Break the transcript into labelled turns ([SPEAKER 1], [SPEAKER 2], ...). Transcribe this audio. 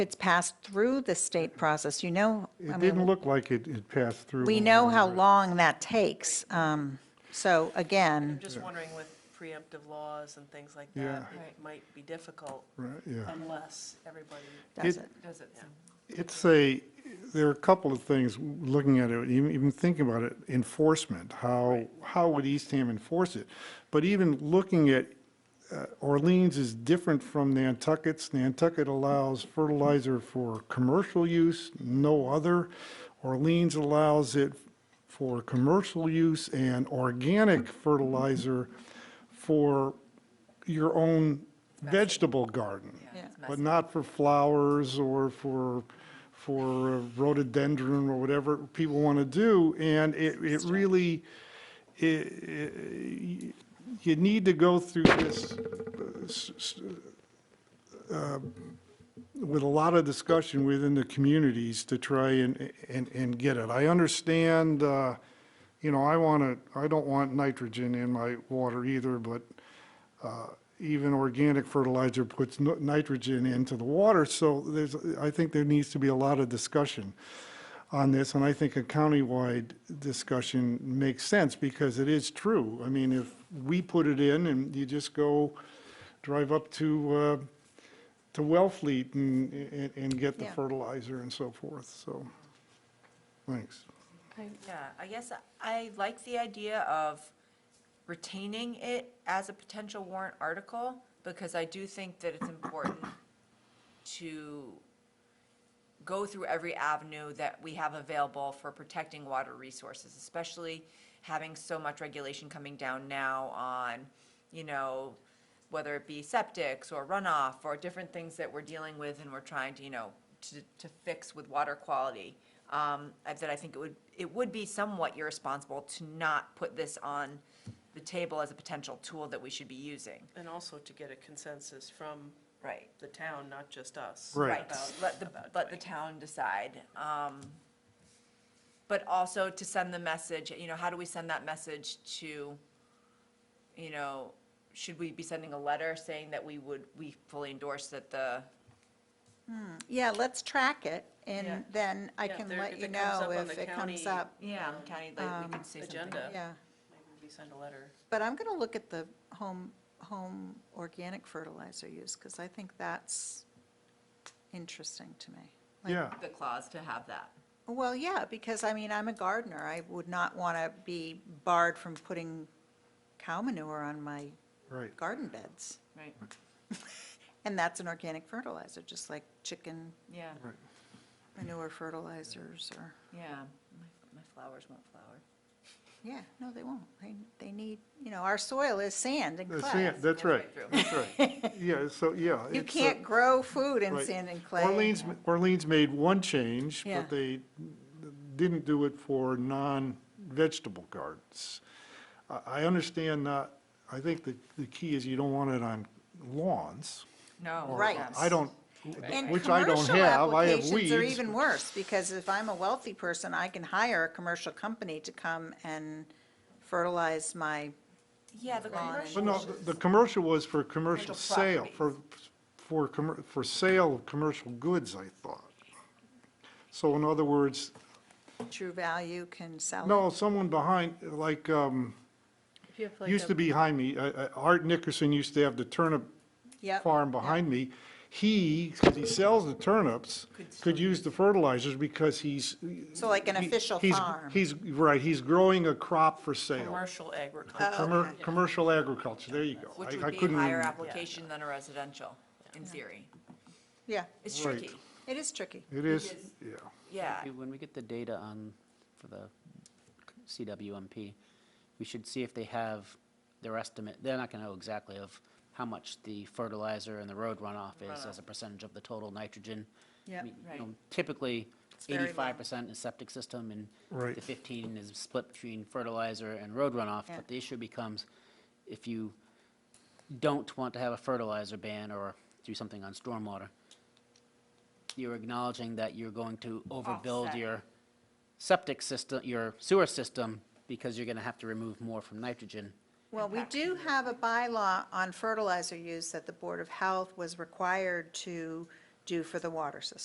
[SPEAKER 1] it's passed through the state process, you know, I
[SPEAKER 2] It didn't
[SPEAKER 1] mean,
[SPEAKER 2] look like it, it passed through.
[SPEAKER 1] we
[SPEAKER 2] when
[SPEAKER 1] know how
[SPEAKER 2] read it.
[SPEAKER 1] long that takes. Um, So again,
[SPEAKER 3] I'm just wondering with preemptive laws and things like
[SPEAKER 2] Yeah.
[SPEAKER 3] that, it might be difficult
[SPEAKER 2] Right, yeah.
[SPEAKER 3] unless everybody
[SPEAKER 1] does
[SPEAKER 2] It-
[SPEAKER 1] it?
[SPEAKER 3] does it.
[SPEAKER 2] It's a, there are a couple of things, looking at it, even, even thinking about it, enforcement, how, how would Eastham enforce it? But even looking at, uh, Orleans is different from Nantucket's. Nantucket allows fertilizer for commercial use, no other. Orleans allows it for commercial use and organic fertilizer for your own vegetable garden
[SPEAKER 1] Yeah.
[SPEAKER 2] but not for flowers or for, for rhododendron or whatever people want to do. And it, it really, i- i- you need to go through this uh, s- s- uh, with a lot of discussion within the communities to try and, and, and get it. I understand, uh, you know, I want to, I don't want nitrogen in my water either, but even organic fertilizer puts n- nitrogen into the water, so there's, I think there needs to be a lot of discussion on this, and I think a countywide discussion makes sense, because it is true. I mean, if we put it in, and you just go drive up to, uh, to Wellfleet and, and- and get the
[SPEAKER 1] Yeah.
[SPEAKER 2] fertilizer and so forth, so, thanks.
[SPEAKER 4] Yeah, I guess I like the idea of retaining it as a potential warrant article, because I do think that it's important to go through every avenue that we have available for protecting water resources, especially having so much regulation coming down now on, you know, whether it be septics or runoff or different things that we're dealing with and we're trying to, you know, to, to fix with water quality. Um, I- that I think it would, it would be somewhat irresponsible to not put this on the table as a potential tool that we should be using.
[SPEAKER 3] And also to get a consensus from
[SPEAKER 4] Right.
[SPEAKER 3] the town, not just us.
[SPEAKER 2] Right.
[SPEAKER 4] Right,
[SPEAKER 3] about-
[SPEAKER 4] let the,
[SPEAKER 3] about
[SPEAKER 4] let the
[SPEAKER 3] doing it.
[SPEAKER 4] town decide. Um, But also to send the message, you know, how do we send that message to, you know, should we be sending a letter saying that we would, we fully endorse that the,
[SPEAKER 1] yeah, let's track it,
[SPEAKER 3] Yeah.
[SPEAKER 1] and then I
[SPEAKER 3] Yeah, if
[SPEAKER 1] can
[SPEAKER 3] there-
[SPEAKER 1] let
[SPEAKER 3] if
[SPEAKER 1] you
[SPEAKER 3] it comes
[SPEAKER 1] know
[SPEAKER 3] up on
[SPEAKER 1] if
[SPEAKER 3] the
[SPEAKER 1] it comes
[SPEAKER 3] county-
[SPEAKER 1] up,
[SPEAKER 4] yeah, county, like, we
[SPEAKER 1] Um,
[SPEAKER 4] could say something.
[SPEAKER 3] agenda. Yeah.
[SPEAKER 1] yeah.
[SPEAKER 3] Maybe we send a letter.
[SPEAKER 1] But I'm going to look at the home, home organic fertilizer use, because I think that's interesting to me. Like,
[SPEAKER 2] Yeah,
[SPEAKER 4] The clause to have that.
[SPEAKER 1] Well, yeah, because, I mean, I'm a gardener, I would not want to be barred from putting cow manure on my
[SPEAKER 2] right,
[SPEAKER 1] garden beds.
[SPEAKER 4] Right.
[SPEAKER 1] And that's an organic fertilizer, just like chicken
[SPEAKER 4] Yeah,
[SPEAKER 2] right.
[SPEAKER 1] manure fertilizers or,
[SPEAKER 4] yeah. My- My flowers won't flower.
[SPEAKER 1] yeah, no, they won't. They, they need, you you know, our soil is sand and
[SPEAKER 2] That's
[SPEAKER 1] clay.
[SPEAKER 2] it, that's right,
[SPEAKER 4] Right through.
[SPEAKER 2] that's right. Yeah, so, yeah.
[SPEAKER 1] You
[SPEAKER 2] it's uh, a-
[SPEAKER 1] can't grow food in
[SPEAKER 2] Right.
[SPEAKER 1] sand and clay.
[SPEAKER 2] Orleans, Orleans made one change,
[SPEAKER 1] Yeah.
[SPEAKER 2] but they didn't do it for non-vegetable gardens. I, I understand not, I think the, the key is you don't want it on lawns.
[SPEAKER 4] No.
[SPEAKER 2] or-
[SPEAKER 1] Right.
[SPEAKER 2] I don't,
[SPEAKER 1] And
[SPEAKER 2] which I don't
[SPEAKER 1] commercial
[SPEAKER 2] have, I have
[SPEAKER 1] applications are
[SPEAKER 2] weeds.
[SPEAKER 1] even worse, because if I'm a wealthy person, I can hire a commercial company to come and fertilize my,
[SPEAKER 4] Yeah, the
[SPEAKER 1] Lawn.
[SPEAKER 4] commercial.
[SPEAKER 2] But no, the- the commercial was for commercial
[SPEAKER 4] Commercial
[SPEAKER 2] sale, for, for, commer- for sale of commercial goods, I thought. So in other words,
[SPEAKER 1] true value can sell it.
[SPEAKER 2] no, someone behind, like, um,
[SPEAKER 3] If you have like
[SPEAKER 2] used
[SPEAKER 3] a-
[SPEAKER 2] to be behind me, uh, uh, Art Nickerson used to have the turnip
[SPEAKER 1] Yep.
[SPEAKER 2] farm behind me, he, because he sells the turnips, could use the fertilizers because he's.
[SPEAKER 1] So like an
[SPEAKER 2] he-
[SPEAKER 1] official
[SPEAKER 2] he's-
[SPEAKER 1] farm.
[SPEAKER 2] He's, right, he's growing a crop for sale.
[SPEAKER 3] Commercial agriculture.
[SPEAKER 2] Commer- Commercial agriculture, there you go.
[SPEAKER 4] Which
[SPEAKER 2] I- I
[SPEAKER 4] would be a
[SPEAKER 2] couldn't-
[SPEAKER 4] higher application than a residential, in theory.
[SPEAKER 1] Yeah,
[SPEAKER 4] It's
[SPEAKER 2] Right.
[SPEAKER 4] tricky,
[SPEAKER 1] it is tricky.
[SPEAKER 2] It is, yeah,
[SPEAKER 4] yeah.
[SPEAKER 5] Maybe When we get the data on, for the CWMP, we should see if they have their estimate, they're not gonna know exactly of how much the fertilizer and the road runoff is as a percentage of the total nitrogen. I
[SPEAKER 1] Yep.
[SPEAKER 5] mean, you
[SPEAKER 4] Right.
[SPEAKER 5] know, Typically,
[SPEAKER 1] very low.
[SPEAKER 5] eighty-five percent is septic system, and
[SPEAKER 2] Right.
[SPEAKER 5] the fifteen is split between fertilizer and road runoff.
[SPEAKER 1] Yeah.
[SPEAKER 5] But the issue becomes, if you don't want to have a fertilizer ban or do something on stormwater, you're acknowledging that you're going to overbuild
[SPEAKER 4] Offset.
[SPEAKER 5] your septic system, your sewer system, because you're gonna have to remove more from nitrogen.
[SPEAKER 1] Well, we do have a bylaw on fertilizer use that the Board of Health was required to do for the water system.